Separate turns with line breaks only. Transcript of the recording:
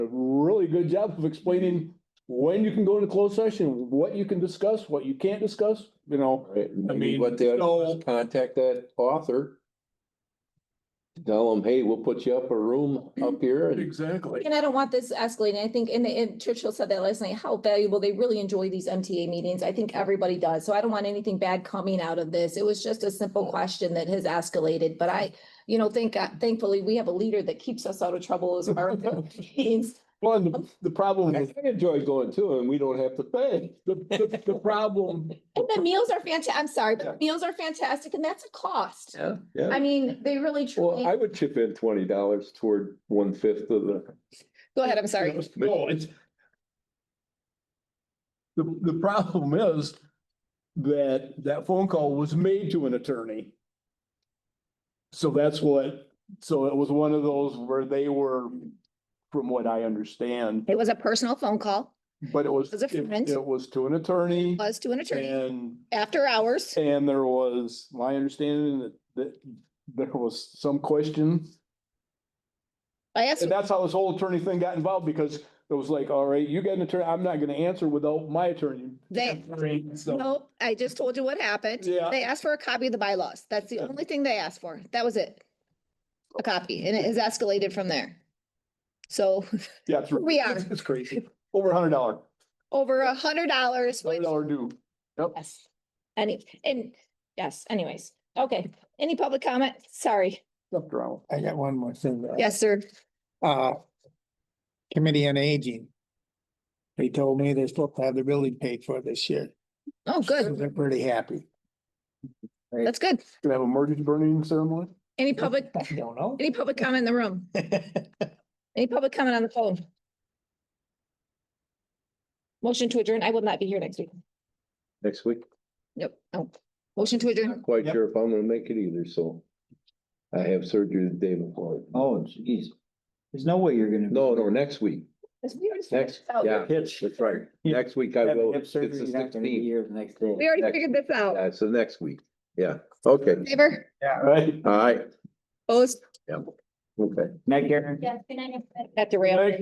a really good job of explaining when you can go into closed session, what you can discuss, what you can't discuss, you know.
Right, maybe
mean,
what they ought to do
so-
is contact that author. Tell them, hey, we'll put you up a room up here and
Exactly.
And I don't want this escalating. I think, and, and Churchill said that last night, how valuable. They really enjoy these MTA meetings. I think everybody does. So I don't want anything bad coming out of this. It was just a simple question that has escalated, but I, you know, thank, God- thankfully, we have a leader that keeps us out of trouble as far as meetings.
Well, and the, the problem,
I
the,
enjoy going to and we don't have to pay.
the, the problem,
And the meals are fantastic. I'm sorry, but the meals are fantastic and that's a cost.
Yeah.
I
Yeah,
mean, they really
well,
truly,
I would chip in twenty dollars toward one fifth of the.
go ahead, I'm sorry.
no, it's. The, the problem is that that phone call was made to an attorney. So that's what, so it was one of those where they were, from what I understand,
It was a personal phone call,
but it was,
Was it
it
friends?
it was to an attorney
was to an
and
after hours.
And there was, my understanding that, that there was some question.
I
And that's how this whole attorney thing got involved because it was like, all right, you got an attorney, I'm not gonna answer without my attorney.
They-
So,
Nope, I just told you what happened.
Yeah.
They asked for a copy of the bylaws. That's the
Yeah.
only thing they asked for. That was it. A copy, and it has escalated from there. So
yeah, it's,
we are
it's it's crazy. Over a hundred dollar,
over a hundred dollars.
hundred dollar due.
Yes, any, and, yes, anyways, okay. Any public comment? Sorry.
Stuff around.
I got one more thing. to add.
Yes, sir.
Uh, Committee on Aging. They told me they're supposed to have the building paid for this year.
Oh,
So
good.
They're pretty happy.
That's good.
Gonna have a mortgage burning ceremony?
Any public,
I don't know.
any public comment in the room? Any public comment on the phone? Motion to adjourn. I will not be here next week.
Next week,
Nope. No. Motion to adjourn.
not quite
Yep.
sure if I'm gonna make it either, so. I have surgery the day before.
Oh, jeez. There's no way you're gonna. be-
No, no, next week, next, yeah,
Hitch.
that's right. Next week I
Oh, Have
will.
hip
It's
surgery, you're
the
not gonna be
sixteenth.
here the next day.
We already figured this out.
Yeah, so next week, yeah, okay,
Favor,
Right.
all right,
opposed,
okay.
Night, Karen?
at the rail.